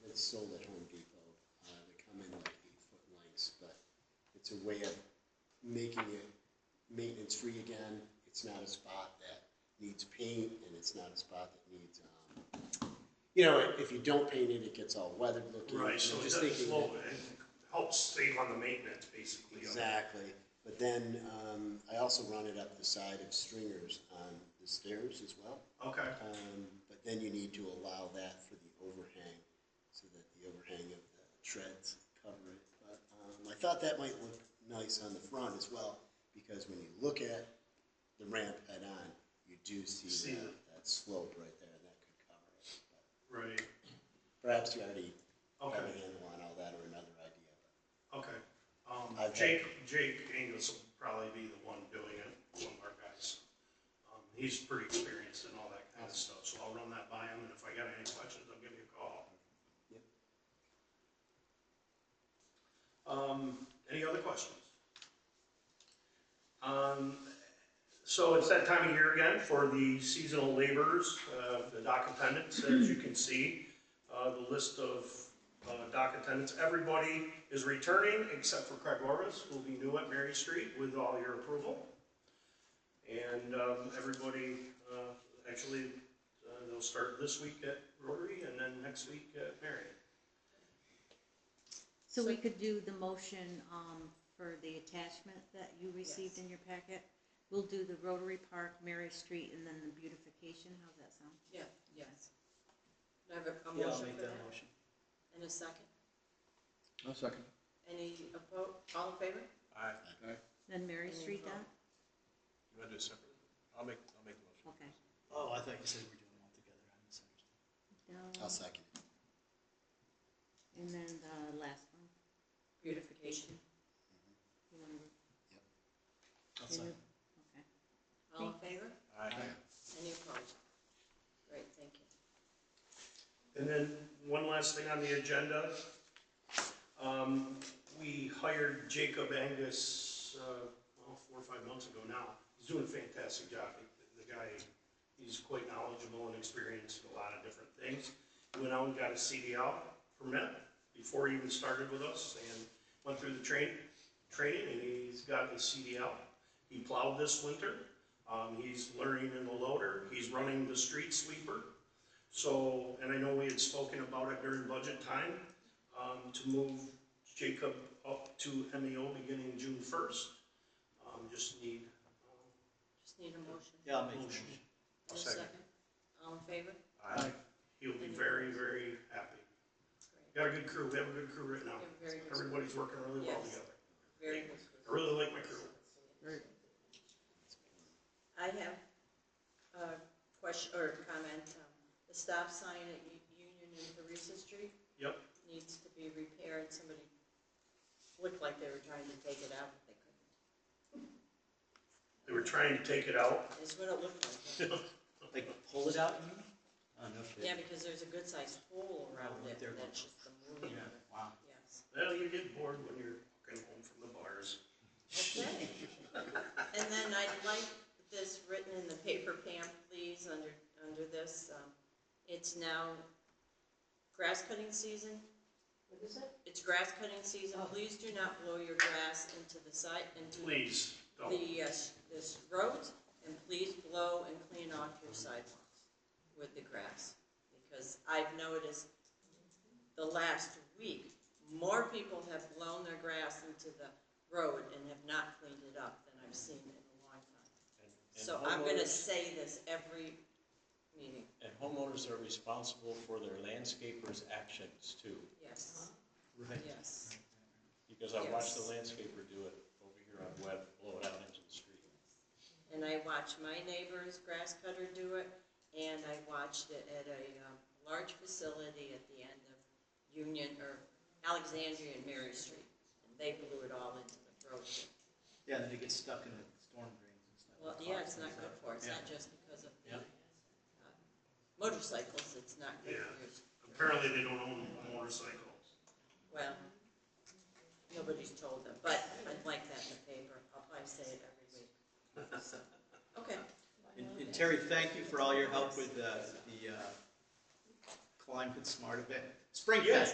is sold at Home Depot. Uh, they come in like eight foot lengths, but it's a way of making it maintenance free again. It's not a spot that needs paint and it's not a spot that needs, um, you know, if you don't paint it, it gets all weathered looking. Right, I'm so it just doesn't thinking slow, that- it helps save on the maintenance, basically. of it. Exactly. But then, um, I also run it up the side of stringers on the stairs as well. Okay, Um, but then you need to allow that for the overhang, so that the overhang of the treads cover it. But, um, I thought that might look nice on the front as well, because when you look at the ramp head on, you do see See that, it. that slope right there, and that could cover it. right, But Perhaps you already have okay, a handle on all that or another idea. okay. Um, I've had- Jake, Jake Angus will probably be the one doing it, one of our guys. Um, he's pretty experienced in all that kind of stuff, so I'll run that by him, and if I got any questions, I'll give you a call. Yep. Um, any other questions? Um, So it's that time of year again for the seasonal laborers, uh, the dock attendants, as you can see, uh, the list of uh, dock attendants. Everybody is returning except for Craig Orvis, who will be new at Mary Street with all your approval. And um, everybody, uh, actually, uh, they'll start this week at Rotary and then next week at Mary. So we could do the motion, um, for the attachment that you received in your packet? We'll do the Rotary Park, Mary Street, and then the beautification, how's that sound? Yeah, yes. Do I have a- a Yeah, I'll motion make for that that? motion. And a second? I'll second. Any opposed, all in favor? Aye. Then Mary And then Street, vote. Doc? You want to do it separately? I'll make, I'll make the motion. Okay. Oh, I thought you said we're doing them all together. I misunderstood. Down, I'll second. And then the last one, Beautification, you wanna- I'll you second. know- okay. all in favor? Aye. Any opposed? Great, thank you. And then one last thing on the agenda. Um, we hired Jacob Angus, uh, well, four or five months ago now. He's doing a fantastic job. The- The guy, he's quite knowledgeable and experienced in a lot of different things. He Went out and got a CDL permit before he even started with us and went through the train, training and he's got his CDL. He plowed this winter. Um, he's learning in the loader. He's running the street sweeper. So, and I know we had spoken about it during budget time, um, to move Jacob up to MEO beginning June first. Um, just need, um, Just need a motion. Yeah, I'll make the Motion. motion. And a second. second? All in favor? Aye. he'll be very, very happy. Great, Got a good crew, we have a good crew right now. Yeah, very good. Everybody's working really well Yes. together. very good. I really like my crew. I have a question, or a comment, um, the stop sign at U- Union and Theresa Street Yep, needs to be repaired, somebody looked like they were trying to take it out, but they couldn't. they were trying to take it out. That's what it looked like. Like, pull it out, you mean? Oh, no Yeah, kidding. because there's a good sized hole around Oh, it, there. that's just the Yeah, moving of it, wow. yes. Well, you get bored when you're walking home from the bars. Okay. And then I'd like this written in the paper, Pam, please, under, under this, um, it's now grass cutting season. What is it? Oh. It's grass cutting season, please do not blow your grass into the site, into the, Please, don't. uh, s- this road, and please blow and clean off your sidewalks with the grass. Because I've noticed the last week, more people have blown their grass into the road and have not cleaned it up than I've seen in a long time. And- and So I'm gonna homeowners- say this every meeting, And homeowners are responsible for their landscaper's actions too, yes, Right. yes. because I watched the Yes. landscaper do it over here on Webb, blow it out into the street. And I watched my neighbor's grass cutter do it, and I watched it at a um, large facility at the end of Union, or Alexandria and Mary Street. And they blew it all into the road. Yeah, and then it gets stuck in the storm drains and stuff. Well, yeah, it's not good for, it. it's not just because of the uh, motorcycles, it's not good for your Apparently they don't own motorcycles. Well, nobody's told them, but I'd like that in the paper, I'll probably say it every week. So, Okay, And and Terry, thank you for all your help with uh, the uh, Climb Good Smart event. Spring Yes. Fest.